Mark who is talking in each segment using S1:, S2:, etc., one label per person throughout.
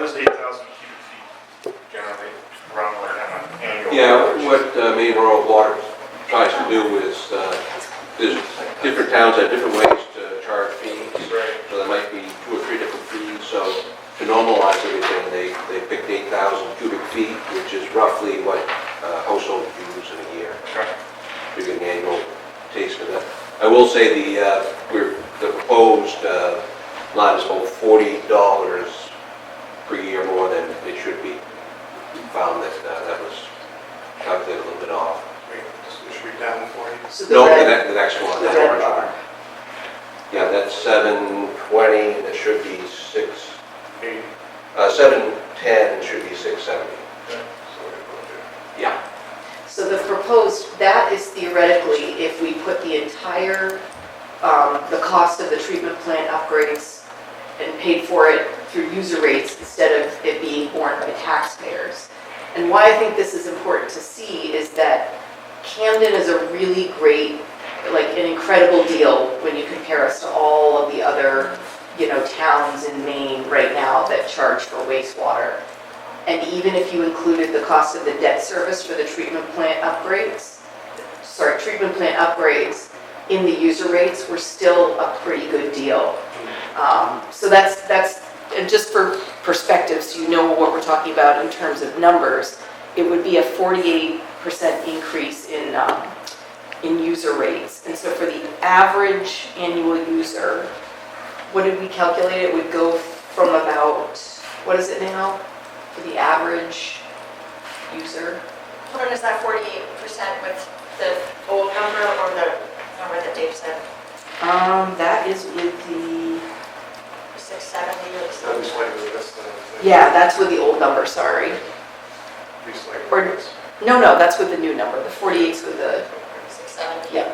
S1: was eight thousand cubic feet generally around where I'm on annual.
S2: Yeah, what uh, Maine Rural Water tries to do is, uh, there's different towns have different ways to charge fees.
S1: Right,
S2: So there might be two or three different fees, so to normalize everything, they, they picked 8,000 cubic feet, which is roughly what uh, households use in a year,
S1: okay,
S2: to get an annual taste of that. I will say the, uh, we're, the proposed uh, lot is about $40 per year more than it should be. We Found that uh, that was calculated a little bit off.
S1: wait, should we down forty?
S3: So the
S2: No, the
S3: red,
S2: ne- the next one,
S3: the
S2: that
S3: red
S2: orange
S3: bar.
S2: one. Yeah, that's 720, and it should be 6,
S1: Eighty.
S2: uh, 710 should be 670.
S1: okay, so we're gonna do it.
S2: Yeah.
S3: So the proposed, that is theoretically, if we put the entire, um, the cost of the treatment plant upgrades and paid for it through user rates instead of it being borne by taxpayers. And why I think this is important to see is that Camden is a really great, like, an incredible deal when you compare us to all of the other, you know, towns in Maine right now that charge for wastewater. And even if you included the cost of the debt service for the treatment plant upgrades, sorry, treatment plant upgrades in the user rates, we're still a pretty good deal. Um, So that's, that's, and just for perspective, so you know what we're talking about in terms of numbers, it would be a 48% increase in, um, in user rates. And so for the average annual user, what did we calculate? It would go from about, what is it now? for the average user.
S4: Hold on, is that forty-eight percent with the old number or the number that Dave said,
S3: Um, that is with the,
S4: six seventy or
S1: That'd be
S4: something?
S1: slightly less than.
S3: yeah, that's with the old number, sorry.
S1: Be slightly
S3: Or-
S1: less.
S3: No, no, that's with the new number, the 48's with the,
S4: Six seventy?
S3: yeah.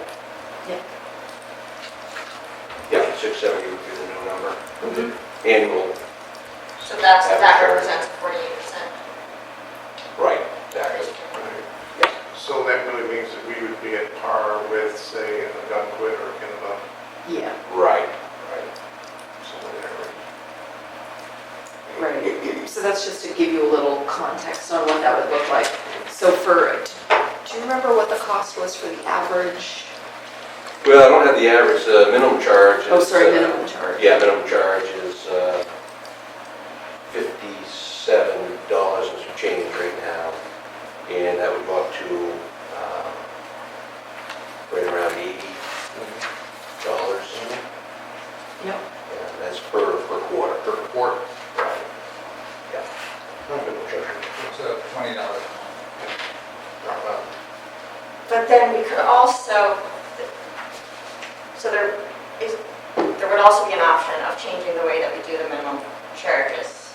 S2: Yeah, 670 would be the new number,
S3: Mm-hmm.
S2: annual,
S4: So that's, that represents forty-eight percent.
S2: right, exactly.
S1: Right. So that really means that we would be at par with, say, a Dunquit or Kennebunk,
S3: Yeah,
S2: Right.
S1: right? Somewhere there.
S3: right. So that's just to give you a little context on what that would look like. So for, do you remember what the cost was for the average?
S2: Well, I don't have the average, the minimum charge is...
S3: Oh, sorry,
S2: uh,
S3: minimum charge.
S2: Yeah, minimum charge is uh, $57 and some change right now, and that would go up to um, right around $80.
S3: Yep.
S2: Yeah, that's per, per quarter. Per quarter. Right. Yeah. Minimum charge.
S5: It's a twenty dollar.
S4: But then we could also, so there is, there would also be an option of changing the way that we do the minimum charges,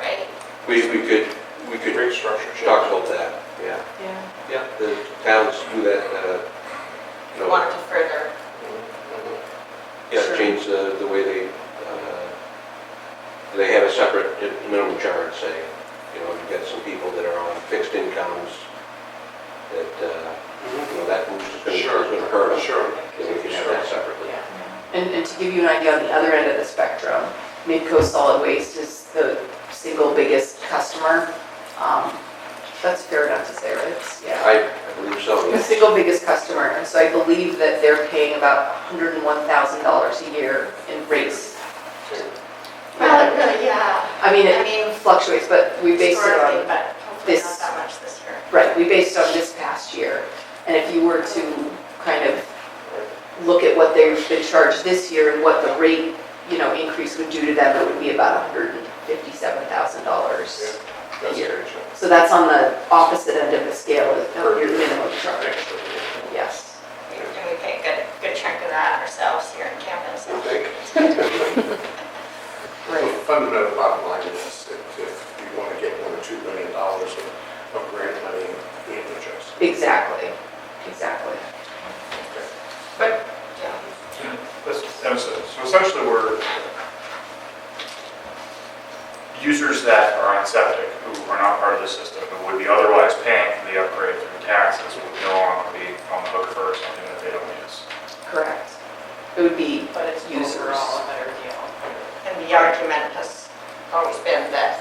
S4: right?
S2: We, we could, we could
S1: Rate structure. change.
S2: talk about that, yeah.
S3: Yeah.
S2: Yeah. The towns do that, uh,
S4: If
S2: you
S4: we wanted
S2: know,
S4: to further,
S2: yeah,
S3: Sure.
S2: change the, the way they, uh, they have a separate minimum charge, say. You know, you've got some people that are on fixed incomes, that, uh,
S1: Mm-hmm.
S2: you know, that boost is gonna, is
S1: Sure.
S2: gonna hurt them.
S1: Sure.
S2: And we can have that separately.
S3: And, and to give you an idea on the other end of the spectrum, Midco Solid Waste is the single biggest customer. Um, That's fair enough to say, right? It's- Yeah.
S2: I I believe so,
S3: The
S2: yes.
S3: single biggest customer, and so I believe that they're paying about $101,000 a year in rates.
S4: well, really, yeah,
S3: I mean,
S4: I
S3: it
S4: mean,
S3: fluctuates, but we base it
S4: historically,
S3: on,
S4: but hopefully
S3: this-
S4: not that much this year.
S3: right, we based on this past year. And if you were to kind of look at what they've been charged this year and what the rate, you know, increase would do to them, it would be about $157,000.
S1: That's
S3: Here.
S1: good.
S3: So that's on the opposite end of the scale of of your minimum charge,
S1: Actually,
S3: yes.
S4: And we pay a good, good chunk of that ourselves here in campus.
S1: I think.
S3: Right.
S1: The fundamental bottom line is if, if you want to get one or two million dollars of of grant money, we have no choice.
S3: Exactly, exactly.
S4: Yeah.
S1: That's- that's it. So essentially, we're users that are on septic, who are not part of the system, who would be otherwise paying for the upgrade through taxes, would no longer be on the hook for something that they don't use.
S3: Correct. It would be
S4: But it's
S3: users.
S4: And the argument has always been that